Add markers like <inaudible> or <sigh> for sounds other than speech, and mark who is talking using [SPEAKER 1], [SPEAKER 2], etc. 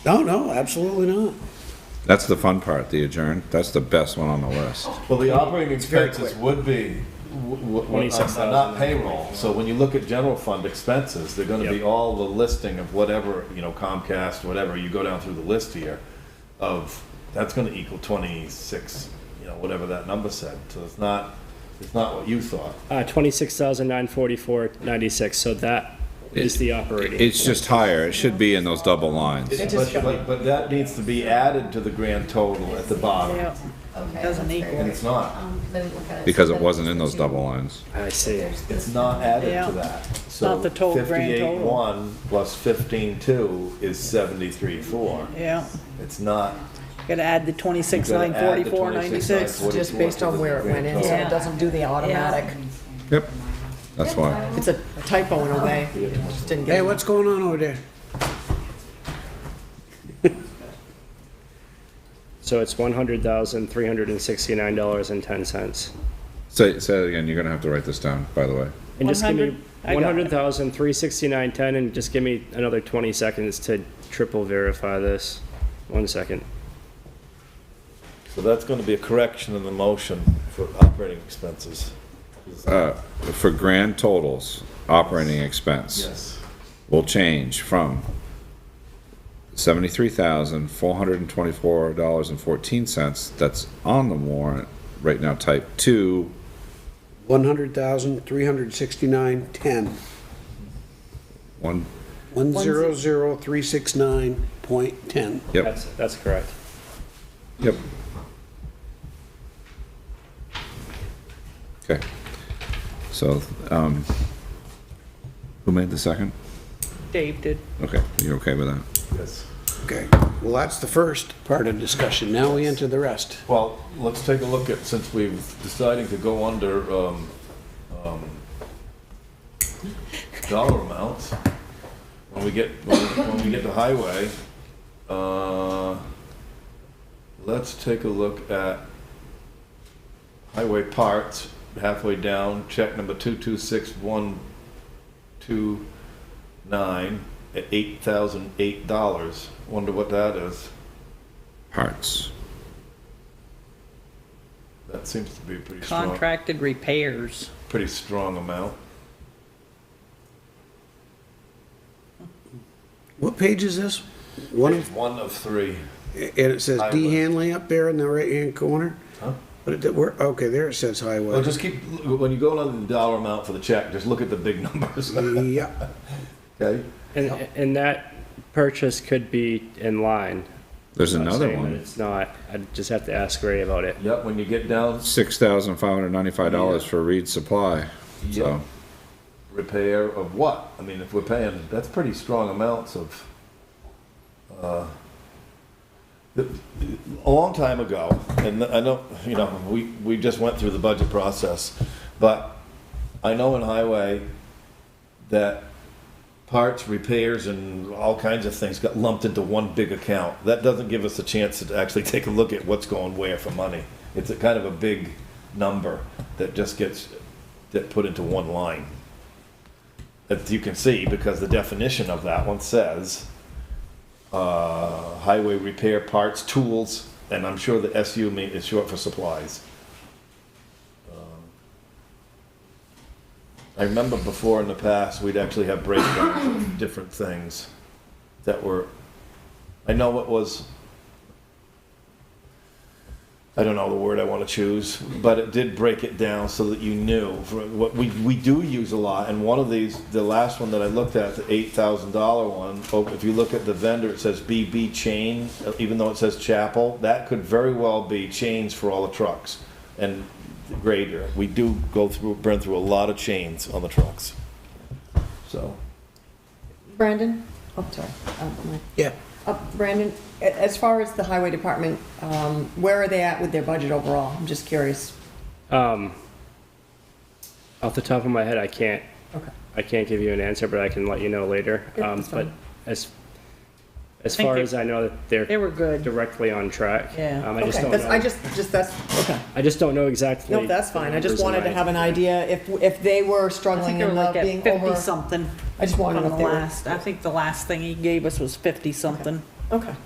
[SPEAKER 1] No, no, absolutely not.
[SPEAKER 2] That's the fun part, the adjourn. That's the best one on the list.
[SPEAKER 3] Well, the operating
[SPEAKER 4] very
[SPEAKER 3] expenses would be, w- w- w- are
[SPEAKER 4] 26,000.
[SPEAKER 3] not payroll, so when you look at general fund expenses, they're gonna be
[SPEAKER 4] Yep.
[SPEAKER 3] all the listing of whatever, you know, Comcast, whatever, you go down through the list here of, that's gonna equal twenty-six, you know, whatever that number said, so it's not, it's not what you thought.
[SPEAKER 4] Uh, twenty-six thousand nine forty-four ninety-six, so that is the operating.
[SPEAKER 2] It's just higher. It should be in those double lines.
[SPEAKER 3] But, but, but that needs to be added to the grand total at the bottom,
[SPEAKER 5] Okay.
[SPEAKER 6] Doesn't
[SPEAKER 5] that's
[SPEAKER 6] equal.
[SPEAKER 3] and
[SPEAKER 5] very-
[SPEAKER 3] it's not,
[SPEAKER 5] um, let me look at it.
[SPEAKER 2] Because
[SPEAKER 5] So
[SPEAKER 2] it
[SPEAKER 5] then
[SPEAKER 2] wasn't in
[SPEAKER 5] the
[SPEAKER 2] those
[SPEAKER 5] two-
[SPEAKER 2] double lines.
[SPEAKER 4] I see.
[SPEAKER 5] there's the
[SPEAKER 3] it's
[SPEAKER 5] two.
[SPEAKER 3] not added
[SPEAKER 6] Yeah.
[SPEAKER 3] to that. So
[SPEAKER 6] Not the total grand total.
[SPEAKER 3] Fifty-eight-one plus fifteen-two is seventy-three-four,
[SPEAKER 6] Yeah,
[SPEAKER 3] it's not
[SPEAKER 6] gotta add the twenty-six, nine forty-four, ninety-six.
[SPEAKER 7] just based on where it went in, so
[SPEAKER 6] Yeah.
[SPEAKER 7] it doesn't do the automatic.
[SPEAKER 2] Yep. That's why.
[SPEAKER 7] It's a typo in a way, It just didn't
[SPEAKER 1] Hey,
[SPEAKER 7] get.
[SPEAKER 1] what's going on over there?
[SPEAKER 4] So it's one hundred thousand three hundred and sixty-nine dollars and ten cents.
[SPEAKER 2] Say, say it again. You're gonna have to write this down, by the way.
[SPEAKER 4] And just give me
[SPEAKER 6] 100? I
[SPEAKER 4] one
[SPEAKER 6] got it.
[SPEAKER 4] hundred thousand three sixty-nine ten, and just give me another twenty seconds to triple verify this. One second.
[SPEAKER 3] So that's gonna be a correction in the motion for operating expenses.
[SPEAKER 2] Uh, for grand totals, operating expense
[SPEAKER 3] Yes.
[SPEAKER 2] will change from seventy-three thousand, four hundred and twenty-four dollars and fourteen cents that's on the warrant right now type two,
[SPEAKER 1] One hundred thousand, three hundred sixty-nine, ten.
[SPEAKER 2] one,
[SPEAKER 1] One zero zero, three six nine point ten.
[SPEAKER 2] yep,
[SPEAKER 4] That's, that's correct.
[SPEAKER 2] yep. Okay. So, um, who made the second?
[SPEAKER 6] Dave did.
[SPEAKER 2] Okay, you're okay with that?
[SPEAKER 3] Yes.
[SPEAKER 1] Okay, well, that's the first part of discussion. Now we enter the rest.
[SPEAKER 3] Well, let's take a look at, since we've deciding to go under, um, um, dollar amounts, when we get, when we- when we get to highway, uh, let's take a look at highway parts, halfway down, check number two-two-six-one-two-nine, at eight thousand eight dollars. Wonder what that is?
[SPEAKER 2] Parts.
[SPEAKER 3] That seems to be a pretty strong.
[SPEAKER 6] Contracted repairs.
[SPEAKER 3] pretty strong amount.
[SPEAKER 1] What page is this? One of,
[SPEAKER 3] One of three.
[SPEAKER 1] and it says D
[SPEAKER 3] Highway.
[SPEAKER 1] Hanley up there in the right-hand corner?
[SPEAKER 3] Huh?
[SPEAKER 1] But it, where, okay, there it says
[SPEAKER 3] Well,
[SPEAKER 1] highway.
[SPEAKER 3] just keep, when you go on the dollar amount for the check, just look at the big <laughs> numbers, <laughs>
[SPEAKER 1] Yeah,
[SPEAKER 3] okay?
[SPEAKER 4] And, and that purchase could be in line.
[SPEAKER 2] There's
[SPEAKER 4] I'm not
[SPEAKER 2] another
[SPEAKER 4] saying that
[SPEAKER 2] one.
[SPEAKER 4] It's not. I just have to ask Ray about it.
[SPEAKER 3] Yep, when you get down,
[SPEAKER 2] Six thousand five hundred ninety-five dollars for Reed Supply.
[SPEAKER 3] Yeah.
[SPEAKER 2] So
[SPEAKER 3] repair of what? I mean, if we're paying, that's pretty strong amounts of, uh, the- a long time ago, and I know, you know, we, we just went through the budget process, but I know in highway that parts, repairs, and all kinds of things got lumped into one big account. That doesn't give us a chance to actually take a look at what's going where for money. It's a kind of a big number that just gets, that put into one line. That you can see, because the definition of that one says, uh, highway repair parts, tools, and I'm sure the SU mean, is short for supplies. Um, I remember before in the past, we'd actually have breakdowns of different things that were, I know it was, I don't know the word I want to choose, but it did break it down so that you knew. For What we, we do use a lot, and one of these, the last one that I looked at, the eight thousand dollar one, oh, if you look at the vendor, it says BB Chain, even though it says Chapel, that could very well be chains for all the trucks. And grader, we do go through, burn through a lot of chains on the trucks. So,
[SPEAKER 7] Brandon, oh, sorry, uh, my
[SPEAKER 1] yeah.
[SPEAKER 7] Uh, Brandon, a- as far as the highway department, um, where are they at with their budget overall? I'm just curious.
[SPEAKER 4] Um, off the top of my head, I can't,
[SPEAKER 7] Okay.
[SPEAKER 4] I can't give you an answer, but I can let you know later.
[SPEAKER 7] Yeah,
[SPEAKER 4] Um,
[SPEAKER 7] that's
[SPEAKER 4] but
[SPEAKER 7] fine.
[SPEAKER 4] as, as
[SPEAKER 6] Thank
[SPEAKER 4] far
[SPEAKER 6] you.
[SPEAKER 4] as I know, that they're
[SPEAKER 6] They were good.
[SPEAKER 4] directly on track.
[SPEAKER 6] Yeah.
[SPEAKER 4] Um, I just
[SPEAKER 7] Okay,
[SPEAKER 4] don't
[SPEAKER 7] that's- I
[SPEAKER 4] know,
[SPEAKER 7] just, just, that's, okay.
[SPEAKER 4] I just don't know exactly.
[SPEAKER 7] No, that's fine. I just
[SPEAKER 4] the numbers in
[SPEAKER 7] wanted to
[SPEAKER 4] my-
[SPEAKER 7] have an idea if, if they were
[SPEAKER 6] I think
[SPEAKER 7] struggling
[SPEAKER 6] they were
[SPEAKER 7] and uh,
[SPEAKER 6] like at
[SPEAKER 7] being over.
[SPEAKER 6] fifty-something
[SPEAKER 7] I just
[SPEAKER 6] on
[SPEAKER 7] wanted
[SPEAKER 6] the
[SPEAKER 7] if they were.
[SPEAKER 6] last, I think the last thing he gave us was fifty-something. Okay.